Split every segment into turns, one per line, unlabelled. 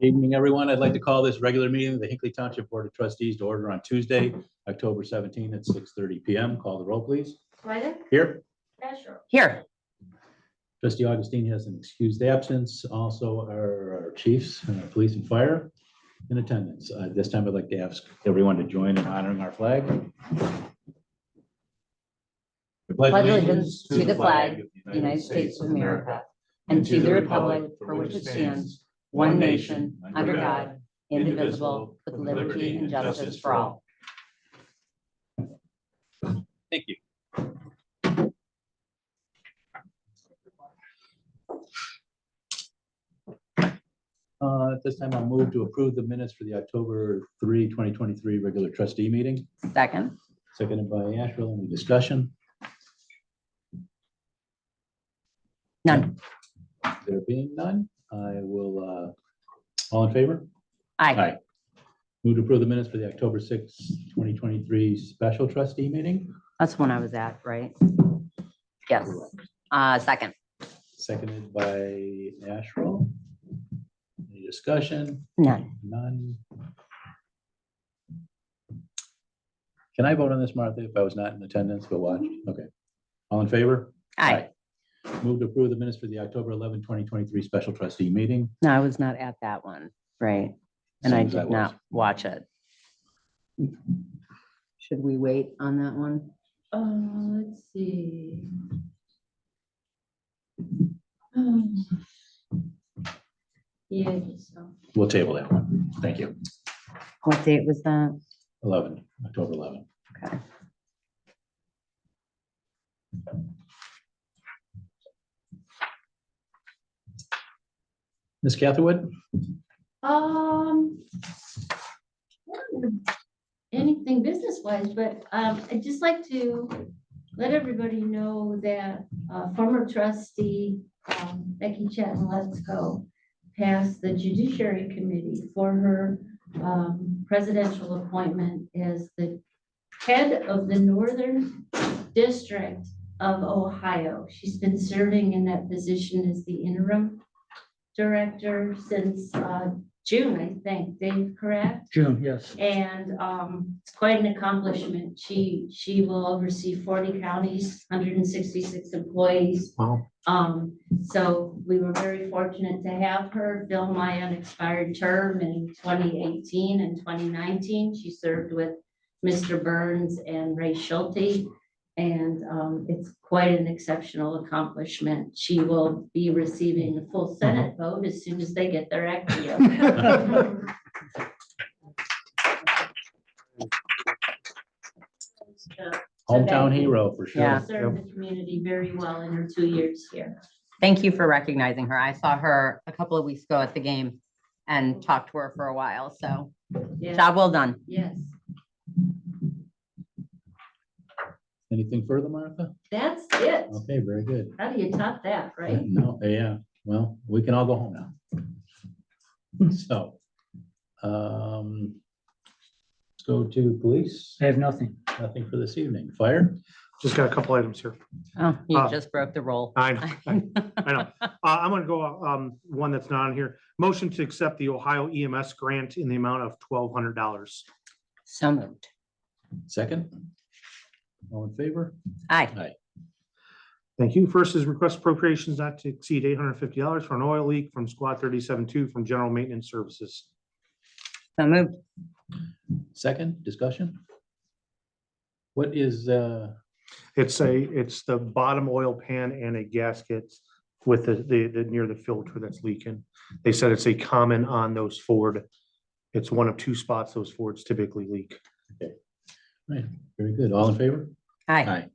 Good Evening, everyone. I'd like to call this regular meeting of the Hinkley Township Board of Trustees to order on Tuesday, October 17th at 6:30 PM. Call the roll, please.
Swedek?
Here,
Asher?
Here,
trustee Augustine has an excused absence. Also, our our chiefs, uh, police and fire in attendance. Uh, This time, I'd like to ask everyone to join in honoring our flag. I
Pledge allegiance to the flag the United States of America, and to the republic for which it stands, one nation, under God, indivisible, with liberty and justice for all.
Thank you. Uh, At this time, I'll move to approve the minutes for the October 3, 2023 regular trustee meeting,
Second,
seconded by Asherle. Any discussion?
None.
There being none, I will, uh, all in favor?
aye.
Aye. Move to approve the minutes for the October 6, 2023 special trustee meeting,
That's the one I was at, right? Yes. Uh, second,
seconded by Asherle. Any discussion?
none.
None. Can I vote on this, Martha, if I was not in attendance but watched? Okay. All in favor?
Aye.
Aye. Move to approve the minutes for the October 11, 2023 special trustee meeting.
No, I was not at that one, right? And I
Same as
did
was.
not watch it. Should we wait on that one?
Uh, let's see. Um, Yeah, um, I think so.
We'll table that one. Thank you.
What date was that?
11, October 11.
Okay.
Ms. Catherwood?
Um. Anything business wise, but um, I'd just like to let everybody know that uh, former trustee um, Becky Chatton Lesko passed the judiciary committee for her um, presidential appointment as the head of the Northern District of Ohio. She's been serving in that position as the interim director since uh, June, I think, Dave, correct?
June, yes.
And um, it's quite an accomplishment. She, she will oversee forty counties, hundred and sixty-six employees.
Wow.
Um, so we were very fortunate to have her fill my unexpired term in twenty eighteen and twenty nineteen. She served with Mr. Burns and Ray Schulte. And um, it's quite an exceptional accomplishment. She will be receiving a full Senate vote as soon as they get their act together.
Hometown
Thank you.
hero for sure.
Yeah.
Served the community very well in her two years here.
Thank you for recognizing her. I saw her a couple of weeks ago at the game and talked to her for a while, so
Yes,
job well done.
yes.
Anything further, Martha?
That's it.
Okay, very good. Uh,
How do you top that, right?
No, yeah, well, we can all go home now.
Hmm.
So, um, let's go to police.
I have nothing.
Nothing for this evening. Fire?
Just got a couple items here.
Oh, you
Uh,
just broke the roll.
I know, I know. Uh, I'm gonna go, um, one that's not on here. Motion to accept the Ohio EMS grant in the amount of twelve hundred dollars.
So moved.
Second? All in favor?
Aye,
Thank you. First is request appropriations not to exceed eight hundred fifty dollars for an oil leak from squad thirty-seven two from general maintenance services.
so moved.
Second, discussion? What is, uh,
It's a, it's the bottom oil pan and a gasket with the, the, the, near the filter that's leaking. They said it's a common on those Ford. It's one of two spots those Fords typically leak.
very good. All in favor?
Aye,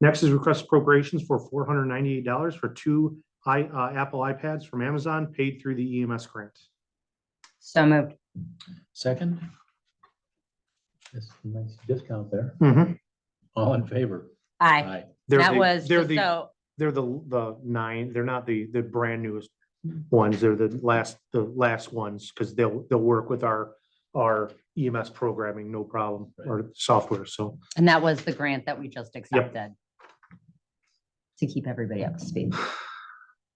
Next is request appropriations for four hundred ninety-eight dollars for two i, uh, Apple iPads from Amazon paid through the EMS grant.
so moved.
Second? That's a nice discount there. All in favor?
Aye,
They're
that
the-
was,
They're
just
the,
so,
they're the, the nine, they're not the, the brand newest ones. They're the last, the last ones, because they'll, they'll work with our, our EMS programming, no problem, or software, so.
and that was the grant that we just accepted. To keep everybody up to speed.